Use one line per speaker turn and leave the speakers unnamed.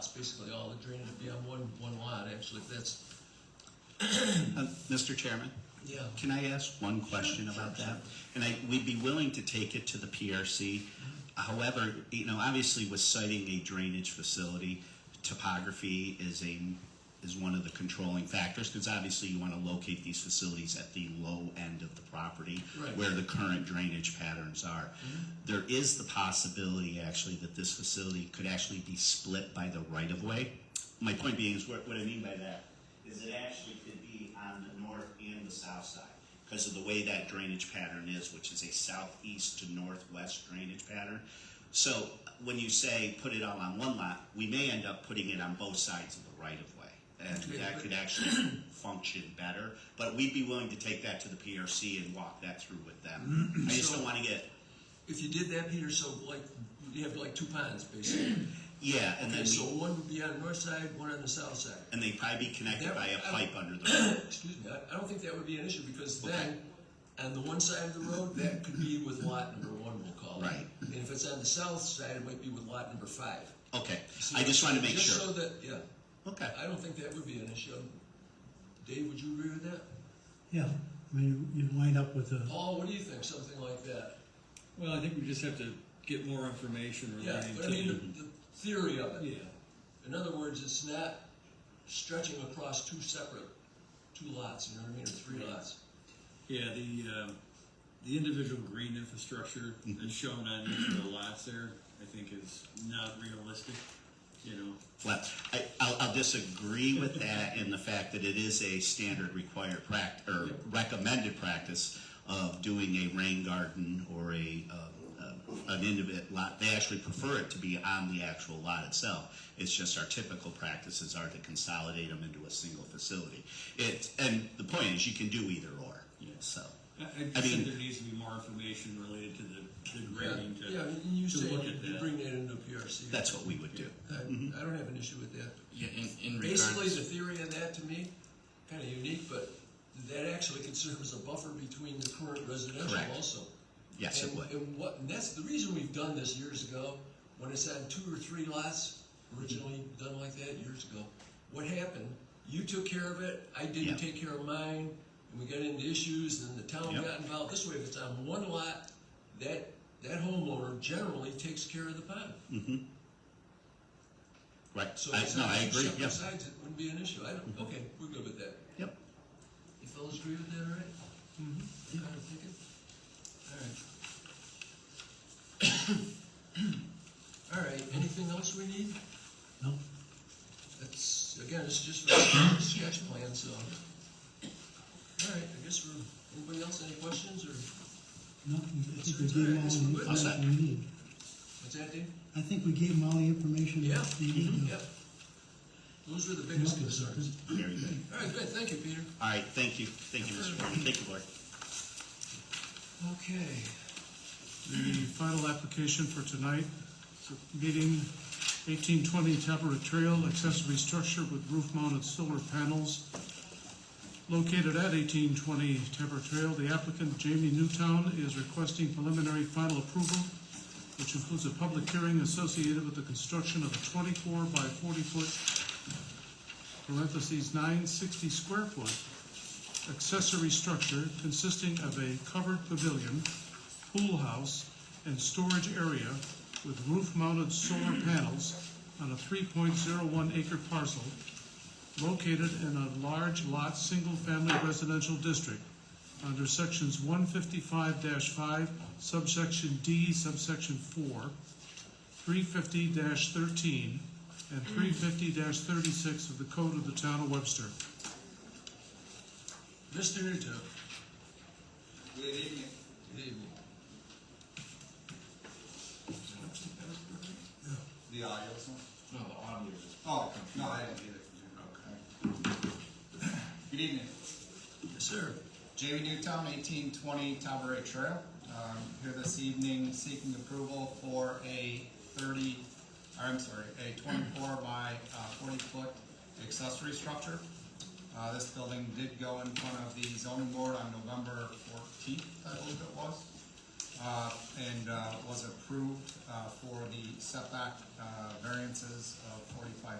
That's basically all it drained, it'd be on one, one lot, actually, that's,
Uh, Mr. Chairman,
yeah.
can I ask one question about that? And I, we'd be willing to take it to the PRC. However, you know, obviously with citing a drainage facility, topography is a, is one of the controlling factors, because obviously you want to locate these facilities at the low end of the property,
Right.
where the current drainage patterns are. There is the possibility, actually, that this facility could actually be split by the right-of-way. My point being is, what what I mean by that is it actually could be on the north and the south side because of the way that drainage pattern is, which is a southeast to northwest drainage pattern. So when you say put it all on one lot, we may end up putting it on both sides of the right-of-way. And that could actually function better, but we'd be willing to take that to the PRC and walk that through with them. I just don't want to get,
If you did that, Peter, so like, you have like two ponds, basically.
yeah, and
Okay,
then,
so
we-
one would be on the north side, one on the south side.
and they'd probably be connected
That-
by a
I-
pipe under the road.
Excuse me, I, I don't think that would be an issue, because then, on the one side of the road, that could be with lot number one, we'll call it.
Right.
And if it's on the south side, it might be with lot number five.
Okay, I just want to make
Just so
sure.
that, yeah,
Okay.
I don't think that would be an issue. Dave, would you agree with that?
Yeah, I mean, you you wind up with a,
Paul, what do you think, something like that?
Well, I think we just have to get more information
Yeah,
relating
but I
to.
mean, the, the theory of
Yeah,
it. In other words, it's not stretching across two separate, two lots, you know what I mean, or three lots.
yeah, the, um, the individual green infrastructure that's shown on each of the lots there, I think is not realistic, you know.
Well, I, I'll, I'll disagree with that in the fact that it is a standard required pract, or recommended practice of doing a rain garden or a, um, uh, an individual lot. They actually prefer it to be on the actual lot itself. It's just our typical practices are to consolidate them into a single facility. It, and the point is, you can do either or,
Yeah.
so.
I, I
I
just
mean-
think there needs to be more information related to the, the
Yeah,
grading to.
yeah, and you
to
say
look
you
at
you
that.
bring that into PRC.
That's what we would do.
I, I don't have an issue with that.
Yeah, in, in
Basically,
regards,
the theory of that to me, kinda unique, but that actually could serve as a buffer between the current residential
Correct.
also.
Yes, it
And-
would.
And what, and that's the reason we've done this years ago, when it's on two or three lots, originally done like that years ago. What happened, you took care of it, I
Yeah.
didn't take care of mine, and we got into issues, and the town
Yep.
got involved. This way, if it's on one lot, that, that homeowner generally takes care of the pond.
Right,
So
Mm. I,
if it's
no,
on
I
two
agree,
separate
yep,
Sides, it wouldn't be an issue, I don't, okay, we're good with that.
yep.
You fellas agree with that, all right? Mm-hmm. All right, take it. All right. All right, anything else we need?
no,
That's, again, it's just for a sketch plan, so. All right, I guess we're, anybody else, any questions, or,
no, I think we
That's
gave them
all right.
all the
I'll
say.
information we need.
what's that, Dave?
I think we gave them all the information
Yeah, Mm-hmm.
that they need.
yep. Those were the
to come
biggest
up with
concerns.
something.
Very good.
All right, good, thank you, Peter.
All right, thank you. Thank you, Mr. Foreman. Thank you, Board.
Okay.
The final application for tonight, meeting eighteen twenty Tapper Trail, accessory structure with roof-mounted solar panels located at eighteen twenty Tapper Trail. The applicant Jamie Newtown is requesting preliminary final approval, which includes a public hearing associated with the construction of a twenty-four by forty-foot parentheses nine sixty square foot accessory structure consisting of a covered pavilion, pool house, and storage area with roof-mounted solar panels on a 3.01 acre parcel located in a large lot, single-family residential district under sections 155-5 subsection D subsection 4, 350-13, and 350-36 of the Code of the Town of Webster.
Mr. Newton. Good evening.
The audio is on?
Good evening. No, the audio is.
Oh, no, I didn't get it. Okay. Good evening.
Yes, sir.
Jamie Newtown, eighteen twenty Tabaret Trail. Um, here this evening seeking approval for a thirty, or I'm sorry, a twenty-four by uh, forty foot accessory structure. Uh, this building did go in front of the zoning board on November fourteenth, I believe it was. uh, and uh, was approved uh, for the setback uh, variances of 45